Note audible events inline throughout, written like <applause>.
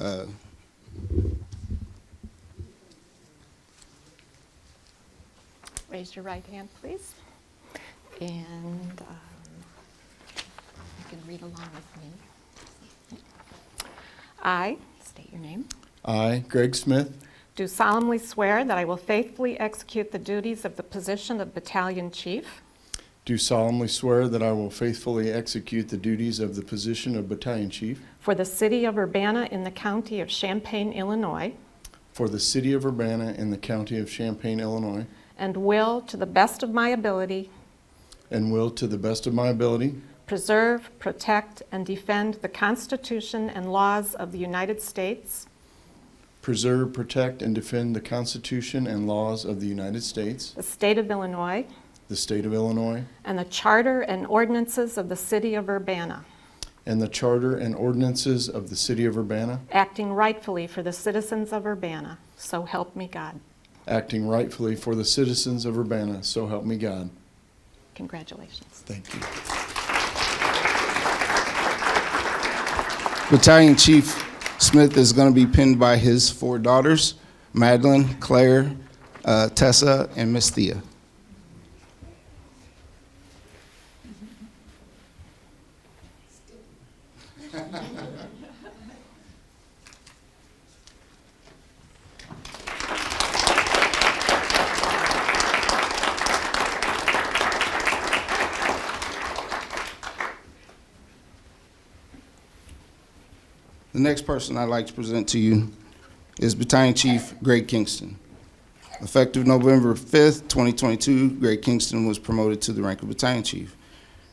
Uh, Raise your right hand, please. And um, you can read along with me. I, state your name, I, Greg Smith, do solemnly swear that I will faithfully execute the duties of the position of Battalion Chief do solemnly swear that I will faithfully execute the duties of the position of Battalion Chief for the City of Urbana in the County of Champaign, Illinois, for the City of Urbana in the County of Champaign, Illinois, and will, to the best of my ability, and will, to the best of my ability, preserve, protect, and defend the Constitution and laws of the United States preserve, protect, and defend the Constitution and laws of the United States, the state of Illinois, the State of Illinois, and the charter and ordinances of the city of Urbana, and the Charter and ordinances of the City of Urbana, acting rightfully for the citizens of Urbana. So help me God. acting rightfully for the citizens of Urbana, so help me God. Congratulations. Thank you. Battalion Chief Smith is going to be pinned by his four daughters, Madeline, Claire, uh, Tessa, and Miss Thea. The next person I'd like to present to you is Battalion Chief Greg Kingston. Effective November 5th, 2022, Greg Kingston was promoted to the rank of Battalion Chief.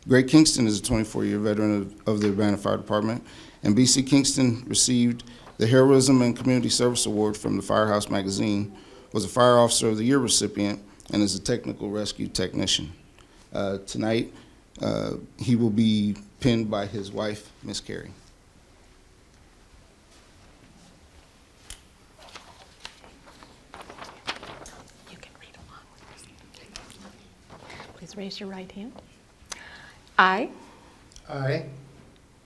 Greg Kingston is a 24-year veteran of- of the Urbana Fire Department, and B.C. Kingston received the Heroism and Community Service Award from the Firehouse Magazine, was a Fire Officer of the Year recipient, and is a technical rescue technician. Uh, Tonight, uh, he will be pinned by his wife, Miss Carrie. You can read along with me. Please raise your right hand. I I,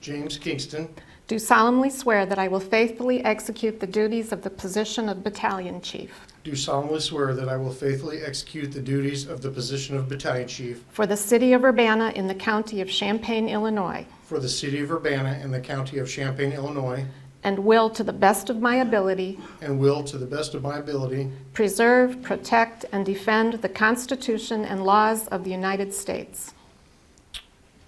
James Kingston, do solemnly swear that I will faithfully execute the duties of the position of battalion chief do solemnly swear that I will faithfully execute the duties of the position of Battalion Chief for the city of Urbana in the county of Champaign, Illinois, for the City of Urbana and the County of Champaign, Illinois, and will, to the best of my ability, and will, to the best of my ability, Preserve, protect, and defend the Constitution and laws of the United States,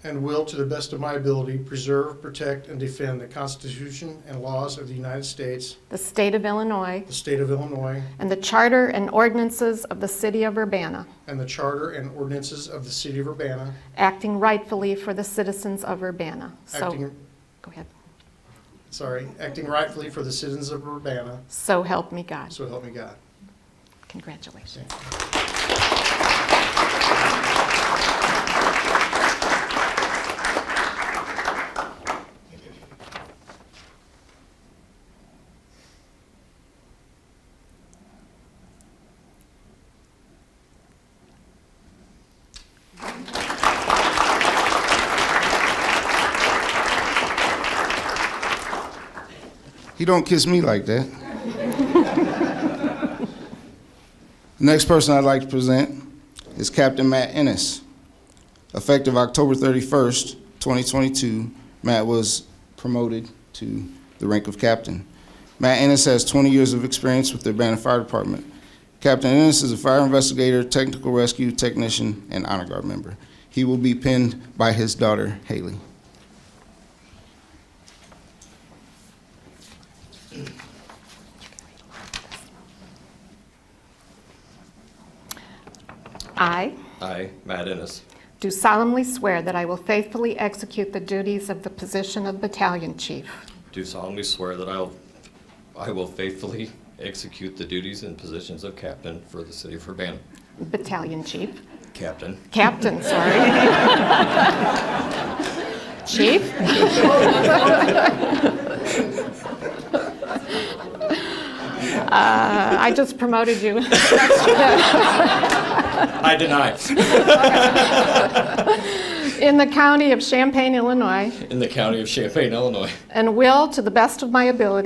and will, to the best of my ability, preserve, protect, and defend the Constitution and laws of the United States, the state of Illinois, the State of Illinois, and the charter and ordinances of the city of Urbana, and the Charter and ordinances of the City of Urbana, acting rightfully for the citizens of Urbana. So, acting, go ahead. sorry, acting rightfully for the citizens of Urbana, So help me God. so help me God. Congratulations. He don't kiss me like that. Next person I'd like to present is Captain Matt Ennis. Effective October 31st, 2022, Matt was promoted to the rank of captain. Matt Ennis has 20 years of experience with the Urbana Fire Department. Captain Ennis is a fire investigator, technical rescue technician, and honor guard member. He will be pinned by his daughter, Haley. I I, Matt Ennis, do solemnly swear that I will faithfully execute the duties of the position of battalion chief do solemnly swear that I'll, I will faithfully execute the duties and positions of captain for the city of Urbana. battalion chief, Captain, captain, sorry. Chief? Uh, I just promoted you. <laughs> I deny, In the county of Champaign, Illinois, in the county of Champaign, Illinois. and will, to the best of my ability,